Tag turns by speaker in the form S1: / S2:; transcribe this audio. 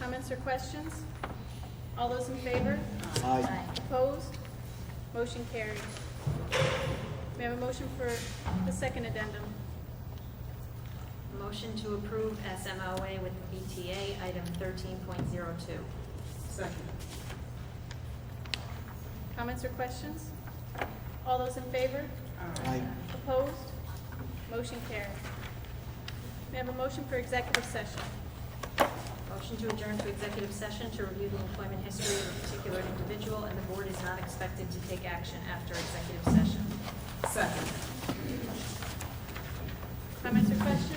S1: Comments or questions? All those in favor?
S2: Aye.
S1: Opposed? Motion carried. We have a motion for the second addendum.
S3: Motion to approve SMOA with BTA, item 13.02.
S4: Second.
S1: Comments or questions? All those in favor?
S2: Aye.
S1: Opposed? Motion carried. We have a motion for executive session.
S3: Motion to adjourn to executive session to review the employment history of a particular individual, and the board is not expected to take action after executive session.
S4: Second.
S1: Comments or questions?